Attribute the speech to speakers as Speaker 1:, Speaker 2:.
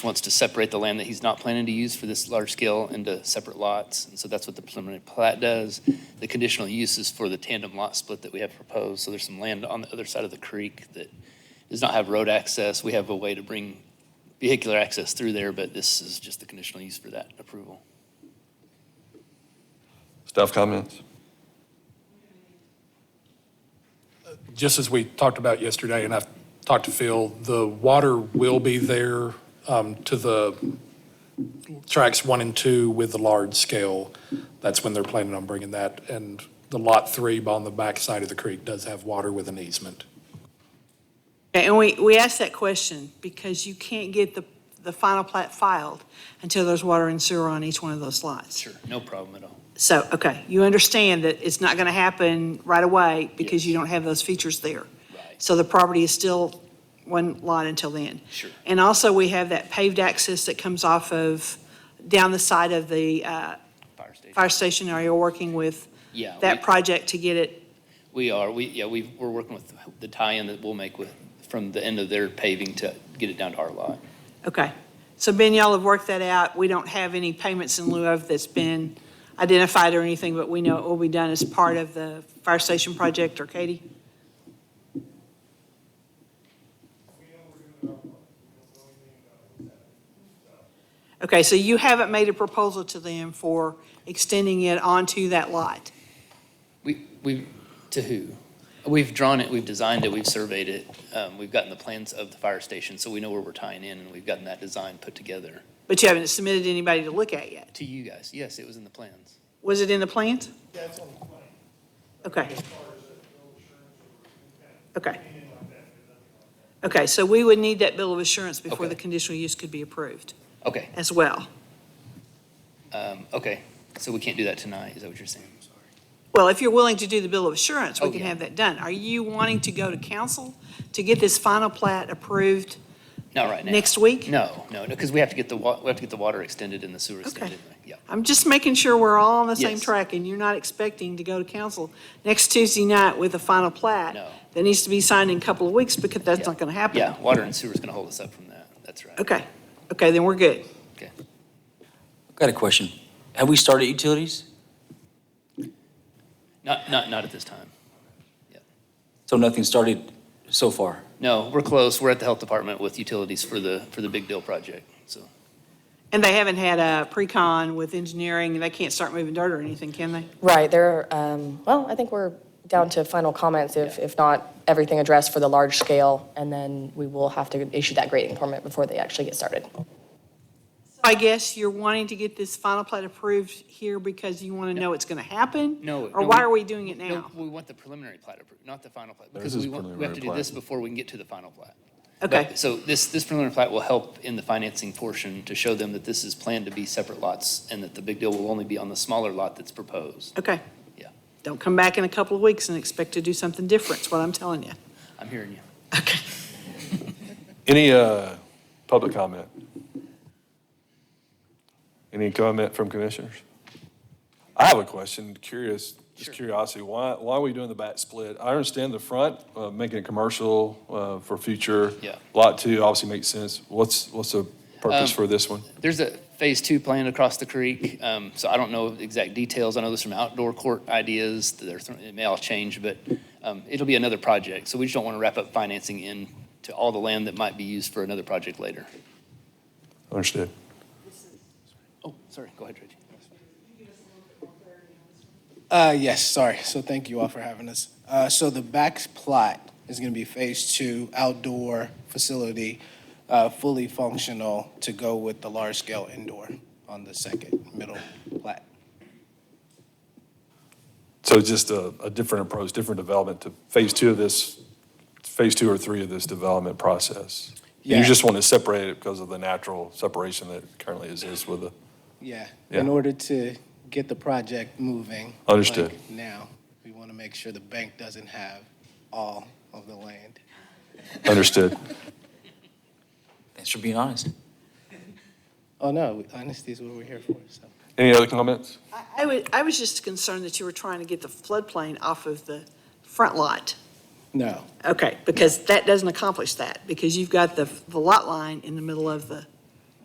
Speaker 1: wants to separate the land that he's not planning to use for this large scale into separate lots. And so that's what the preliminary plat does. The conditional use is for the tandem lot split that we have proposed. So there's some land on the other side of the creek that does not have road access. We have a way to bring vehicular access through there, but this is just the conditional use for that approval.
Speaker 2: Staff comments?
Speaker 3: Just as we talked about yesterday, and I've talked to Phil, the water will be there um, to the tracks one and two with the large scale. That's when they're planning on bringing that. And the lot three on the back side of the creek does have water with an easement.
Speaker 4: Okay, And we, we asked that question because you can't get the, the final plat filed until there's water and sewer on each one of those lots.
Speaker 1: Sure, no problem at all.
Speaker 4: So, okay, you understand that it's not going to happen right away because you don't have those features there.
Speaker 1: Right.
Speaker 4: So the property is still one lot until then.
Speaker 1: Sure.
Speaker 4: And also, we have that paved access that comes off of, down the side of the uh,
Speaker 1: Fire station.
Speaker 4: fire station area, You're working with
Speaker 1: Yeah,
Speaker 4: that
Speaker 1: we-
Speaker 4: project to get it.
Speaker 1: we are. We, yeah, we, we're working with the tie-in that we'll make with, from the end of their paving to get it down to our lot.
Speaker 4: Okay. So Ben, y'all have worked that out. We don't have any payments in lieu of that's been identified or anything, but we know it will be done as part of the fire station project, or Katie? Okay, so you haven't made a proposal to them for extending it onto that lot?
Speaker 1: We, we, to who? We've drawn it, we've designed it, we've surveyed it, um, we've gotten the plans of the fire station, so we know where we're tying in, and we've gotten that design put together.
Speaker 4: But you haven't submitted anybody to look at yet?
Speaker 1: To you guys, yes, it was in the plans.
Speaker 4: Was it in the plans?
Speaker 5: Yeah, it's on the plan.
Speaker 4: Okay,
Speaker 5: As far as that, no insurance or
Speaker 4: okay.
Speaker 5: anything like that, there's nothing like that.
Speaker 4: Okay, so we would need that bill of assurance before
Speaker 1: Okay.
Speaker 4: the conditional use could be approved
Speaker 1: Okay,
Speaker 4: as well.
Speaker 1: um, okay, so we can't do that tonight, is that what you're saying? I'm sorry.
Speaker 4: Well, if you're willing to do the bill of assurance, we
Speaker 1: Oh,
Speaker 4: can
Speaker 1: yeah.
Speaker 4: have that done. Are you wanting to go to council to get this final plat approved
Speaker 1: Not right now.
Speaker 4: next week?
Speaker 1: No, no, no, because we have to get the wa, we have to get the water extended and the sewer extended, yeah.
Speaker 4: I'm just making sure we're all on the same
Speaker 1: Yes.
Speaker 4: track and you're not expecting to go to council next Tuesday night with a final plat
Speaker 1: No.
Speaker 4: that needs to be signed in a couple of weeks because that's
Speaker 1: Yeah.
Speaker 4: not going to happen.
Speaker 1: Yeah, water and sewer's gonna hold us up from that, that's right.
Speaker 4: Okay, okay, then we're good.
Speaker 1: Okay.
Speaker 6: I've Got a question. Have we started utilities?
Speaker 1: Not, not, not at this time.
Speaker 6: So nothing started so far?
Speaker 1: No, we're close, we're at the health department with utilities for the, for the big deal project, so.
Speaker 4: And they haven't had a pre-con with engineering and they can't start moving dirt or anything, can they?
Speaker 7: Right, there, um, well, I think we're down to final comments, if, if not everything addressed for the large scale, and then we will have to issue that grading permit before they actually get started.
Speaker 4: I guess you're wanting to get this final plat approved here because you want to know it's going to happen?
Speaker 1: No,
Speaker 4: Or
Speaker 1: no,
Speaker 4: why
Speaker 1: we-
Speaker 4: are we doing it
Speaker 1: No,
Speaker 4: now?
Speaker 1: we want the preliminary plat approved, not the final plat, because
Speaker 2: This is
Speaker 1: we want, we have
Speaker 2: preliminary
Speaker 1: to do this
Speaker 2: plat.
Speaker 1: before we can get to the final plat.
Speaker 4: Okay,
Speaker 1: But- So this, this preliminary plat will help in the financing portion to show them that this is planned to be separate lots and that the big deal will only be on the smaller lot that's proposed.
Speaker 4: okay.
Speaker 1: Yeah.
Speaker 4: Don't come back in a couple of weeks and expect to do something different, is what I'm telling you.
Speaker 1: I'm hearing you.
Speaker 4: Okay.
Speaker 2: Any uh, public comment? Any comment from commissioners? I have a question, curious, just curiosity, why, why are we doing the back split? I understand the front, uh, making it commercial uh, for future.
Speaker 1: Yeah.
Speaker 2: Lot two obviously makes sense. What's, what's the purpose
Speaker 1: Um,
Speaker 2: for this one?
Speaker 1: There's a phase two plan across the creek, um, so I don't know the exact details. I know there's some outdoor court ideas that are, thrown- it may all change, but, um, it'll be another project. So we just don't want to wrap up financing in to all the land that might be used for another project later.
Speaker 2: Understood.
Speaker 1: Oh, sorry, go ahead, Reggie.
Speaker 8: Uh, yes, sorry. So thank you all for having us. Uh, so the back plot is going to be phase two outdoor facility, uh, fully functional to go with the large scale indoor on the second middle plat.
Speaker 2: So just a, a different approach, different development to phase two of this, phase two or three of this development process. You
Speaker 8: Yeah.
Speaker 2: just want to separate it because of the natural separation that currently exists with the
Speaker 8: Yeah,
Speaker 2: Yeah.
Speaker 8: in order to get the project moving.
Speaker 2: Understood.
Speaker 8: like now, we want to make sure the bank doesn't have all of the land.
Speaker 2: Understood.
Speaker 6: Thanks for being honest.
Speaker 8: Oh, no, honesty is what we're here for, so.
Speaker 2: Any other comments?
Speaker 4: I- I was, I was just concerned that you were trying to get the floodplain off of the front lot.
Speaker 8: No,
Speaker 4: Okay, because that doesn't accomplish that, because you've got the, the lot line in the middle of the